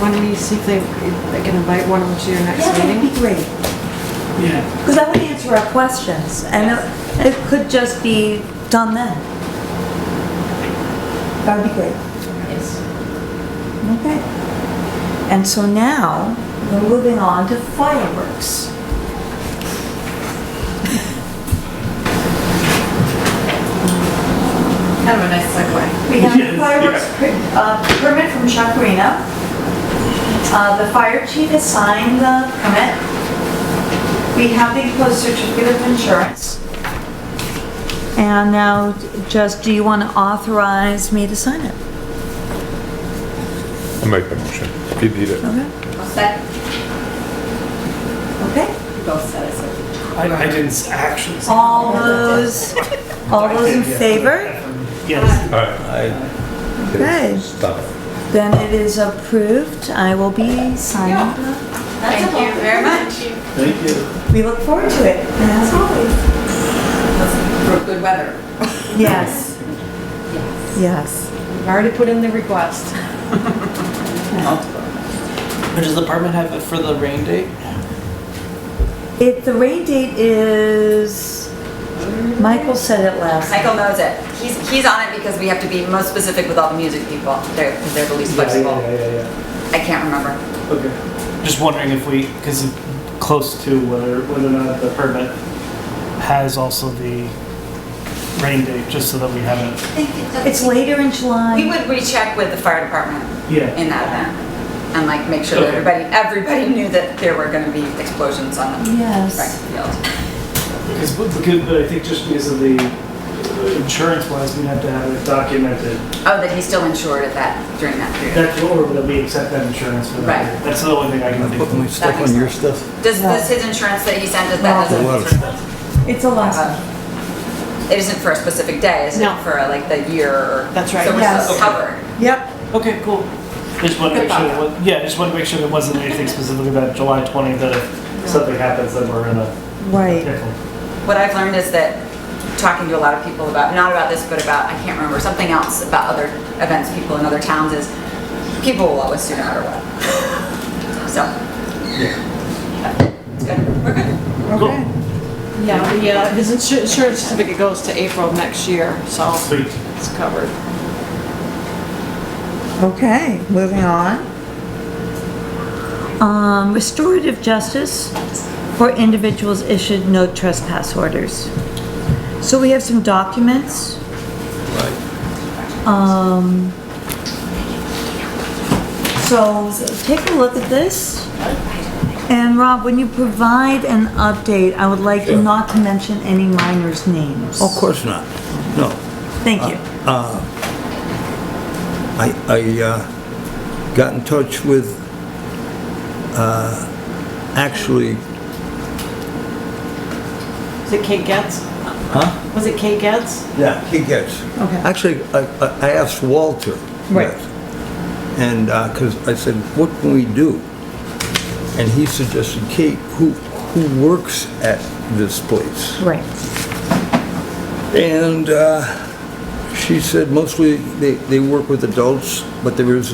why don't you see if they, if they can invite one of them to your next Yeah, that'd meeting? be great. Yeah, Because that would answer our questions, and it- it could just be done then. That would be great. Yes. Okay. And so now, we're moving on to fireworks. Kind of a nice segue. We have Yes, a fireworks per- uh, permit from Chuck Reno. Uh, The fire chief has signed the permit. We have the enclosed certificate of insurance. And now, just, do you want to authorize me to sign it? I'll make the motion. You need it. Okay. All set? Okay. You both said it, so. I, I didn't s- actually. say- All those, all those in favor? Yes, Okay. Stop. Then it is approved. I will be signing. the- Thank you very much. thank you. We look forward to it, as always. For good weather. Yes. Yes. I've already put in the request. Or Does the department have it for the rain date? It, the rain date is, Michael said it last. Michael knows it. He's, he's on it because we have to be most specific with all the music people. They're, because they're the least flexible. Yeah, yeah, yeah, I can't remember. yeah. Okay. Just wondering if we, because close to whether, whether or not the permit has also the rain date, just so that we have it. It's later in July. We would recheck with the fire department in Yeah. that event and like make sure that everybody, everybody knew that there were gonna be explosions on the Yes. practice field. Because, but I think just because of the insurance wise, we have to have it documented. Oh, that he's still insured at that, during that period. That's or that we accept that insurance for that. Right. That's the only thing I can think of. That makes sense. stuff? Does this, his insurance that he sent, does that, No. doesn't- It's a lot. Uh, it isn't for a specific day, is it? No. For like the year or? That's right. So we're Yes. still covered. Yep. Okay, cool. I just want to make sure, that wa- yeah, I just want to make sure there wasn't anything specific about July 20th that if something happens, then we're gonna. Right. What I've learned is that talking to a lot of people about, not about this, but about, I can't remember, something else about other events, people in other towns is people will always sue no matter what. So. It's good. We're good. Okay. Yeah, the, uh, his insu- insurance certificate goes to April of next year, so Sweet. it's covered. Okay, moving on. Um, restorative justice for individuals issued no trespass orders. So we have some documents. Um, so take a look at this. And Rob, when you provide an update, I would like you not to mention any minors' names. Of course not. No. Thank you. I, I uh, got in touch with, uh, actually, Is it Kate Getz? huh? Was it Kate Getz? Yeah. He gets. Okay. Actually, I, I- I asked Walter. Right. that. And, uh 'cause cause I said, what can we do? And he suggested Kate, who, who works at this place? Uh, Right. And uh, she said mostly they, they work with adults, but there is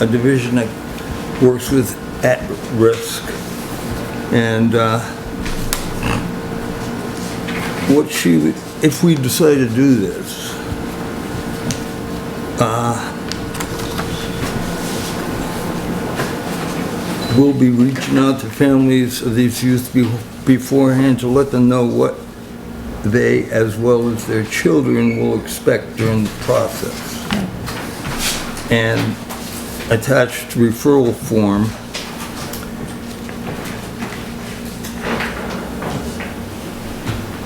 a division that works with at-risk. And uh, what she, would- if we decide to do this, uh, we'll be reaching out to families of these youth be- beforehand to let them know what they, as well as their children, will expect during the process. And attached referral form.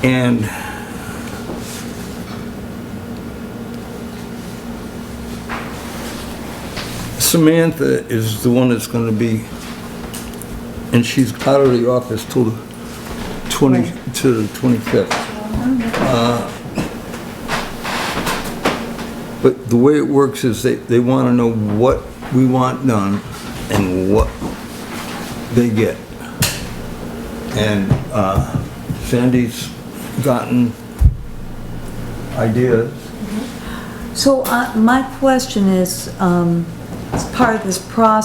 And Samantha is the one that's going to be, and she's out of the office till the 20, to the Uh, 25th. But the way it works is they, they want to know what we want done and what they get. And uh, Sandy's gotten ideas. So uh, my question is, um, as part of this process.